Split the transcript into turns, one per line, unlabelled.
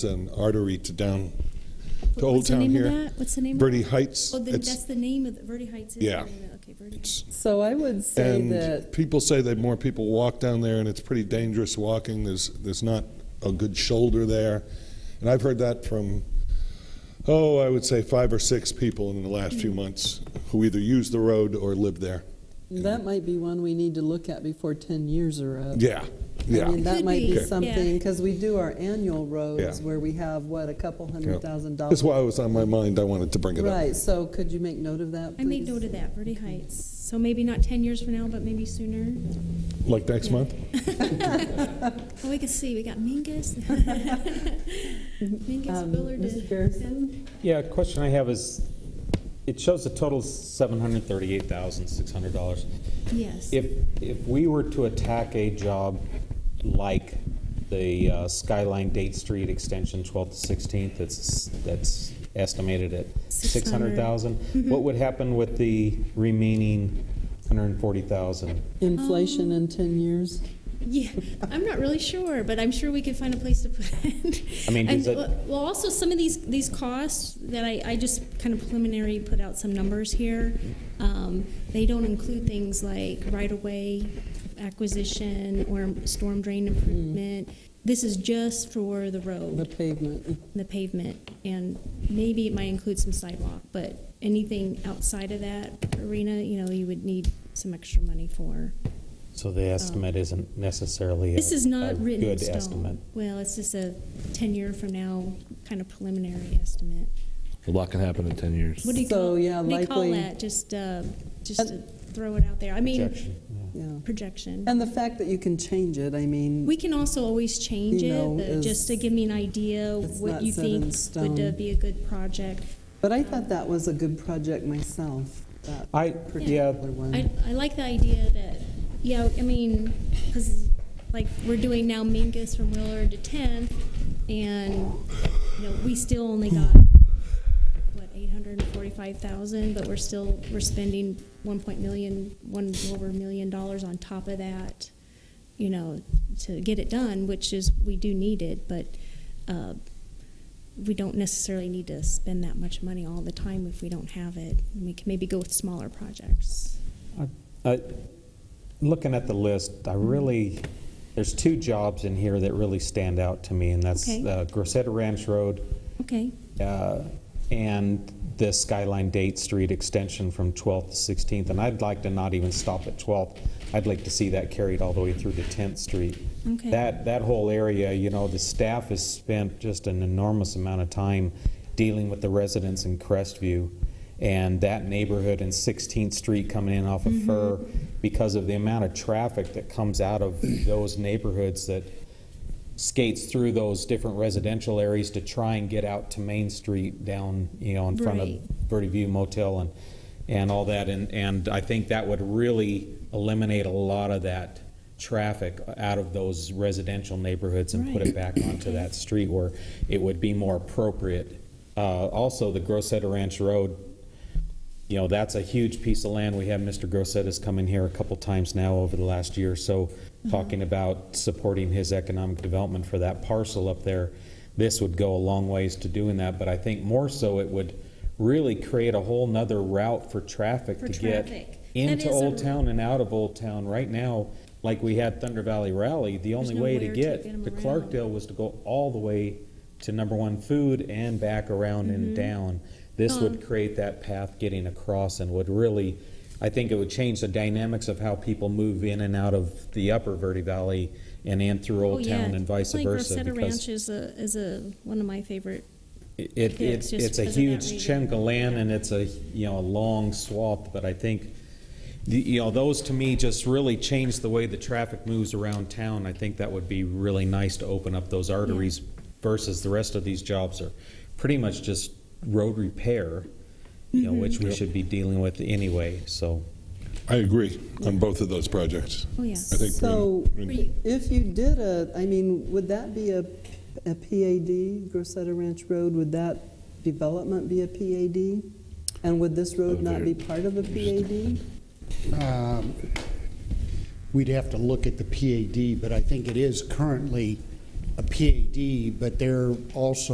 an artery to down to
What-
Old
what's the
Town
name of
here.
that? What's the name of
Verde
that?
Heights.
Oh, the,
It's-
that's the name of the, Verde Heights? is the
Yeah.
name of- Okay, Verde
It's-
Heights.
So I would say that
And people say that more people walk down there, and it's pretty dangerous walking. There's, there's not a good shoulder there. And I've heard that from, oh, I would say five or six people in the last few months who either use the road or live there.
that might be one we need to look at before 10 years are up.
Yeah,
I mean,
yeah.
that
Could
might
be,
be
Okay.
something,
yeah.
because we do our annual roads
Yeah.
where we have, what, a couple
yeah.
hundred thousand
That's
dollars?
why it was on my mind. I wanted to bring it up.
Right, so could you make note of that,
I made
please?
note of that, Verde Heights. So maybe not 10 years from now, but maybe sooner.
Like next month?
Well, Oh, we can see, we got Mingus. Mingus,
Um,
Willard.
Mr. Garrison?
Yeah, question I have is, it shows the total seven hundred thirty-eight thousand six hundred dollars.
Yes.
If, if we were to attack a job like the uh, Skyline Date Street Extension twelfth to sixteenth, that's, that's estimated at six
600.
hundred thousand,
Mm-hmm.
what would happen with the remaining hundred and forty thousand?
Inflation
Um,
in 10 years?
Yeah, I'm not really sure, but I'm sure we could find a place to put it.
I mean,
And,
does it-
Well, also, some of these, these costs that I, I just kind of preliminary put out some numbers here. Um, They don't include things like right-of-way acquisition or storm drain
Mm-hmm.
improvement. This is just for the
The
road,
pavement.
the pavement, and maybe it might include some sidewalk, but anything outside of that arena, you know, you would need some extra money for.
So the estimate isn't necessarily a
This is
a
not written in
good
stone.
estimate.
Well, it's just a 10-year from now kind of preliminary estimate.
A lot can happen in 10 years.
What do you
So,
call,
yeah,
what do you call
likely-
that? Just, uh, just to throw it out there. I mean,
Projection, yeah.
Yeah.
projection.
And the fact that you can change it, I mean,
We can also always change
You know,
it, but just to
is-
give me an idea
It's
what
not
you
set in
think would uh,
stone.
be a good project.
but I thought that was a good project myself, that
I, yeah,
particular one.
I, I like the idea that, yeah, I mean, because like we're doing now Mingus from Willard to 10th, and, you know, we still only got, what, 845,000, but we're still, we're spending 1 point million, one over million dollars on top of that, you know, to get it done, which is, we do need it, but uh, we don't necessarily need to spend that much money all the time if we don't have it. We can maybe go with smaller projects.
I- I- Looking at the list,
Mm-hmm.
I really, there's two jobs in here that really stand out to me, and that's
Okay.
uh, Grosseto Ranch Road
Okay.
uh, and the Skyline Date Street extension from 12th to 16th. And I'd like to not even stop at 12th. I'd like to see that carried all the way through to 10th Street.
Okay.
That, that whole area, you know, the staff has spent just an enormous amount of time dealing with the residents in Crestview. And that neighborhood and 16th Street coming in off of Fur, because of the amount of traffic that comes out of those neighborhoods that skates through those different residential areas to try and get out to Main Street down, you know, in front of
Right.
Verde View Motel and, and all that. And, and I think that would really eliminate a lot of that traffic out of those residential neighborhoods and put it back onto that street where it would be more appropriate. Uh, also, the Grosseto Ranch Road, you know, that's a huge piece of land. We have Mr. Grossetta's come in here a couple times now over the last year or so,
Mm-hmm.
talking about supporting his economic development for that parcel up there. This would go a long ways to doing that, but I think more so it would really create a whole nother route for traffic
For
to get
traffic. That
into
is a-
Old Town and out of Old Town. Right now, like we had Thunder Valley Rally, the only
no
way to
where to
get
get 'em
to
around.
Clarkdale was to go all the way to number one food and back around
Mm-hmm.
and down. This would create that path getting across and would really, I think it would change the dynamics of how people move in and out of the upper Verde Valley and in through Old Town and vice versa.
Oh, Like Rosetta
because
Ranch is a, is a, one of my favorite.
it, it,
Yeah, it's
it's,
just
it's a
because of that
huge
reason.
chunk of land and it's a, you know, a long swath, but I think, the- you know, those to me just really change the way the traffic moves around town. I think that would be really nice to open up those arteries versus the rest of these jobs are pretty much just road repair, you
Mm-hmm.
know, which we should be dealing with anyway, so.
I agree on both of those projects.
Oh, yeah.
I think
So-
we're in- we're in-
Free.
If you did a, I mean, would that be a, a PAD, Grosseto Ranch Road, would that development be a PAD? And would this road not be part of a PAD?
Um, We'd have to look at the PAD, but I think it is currently a a PAD, but they're also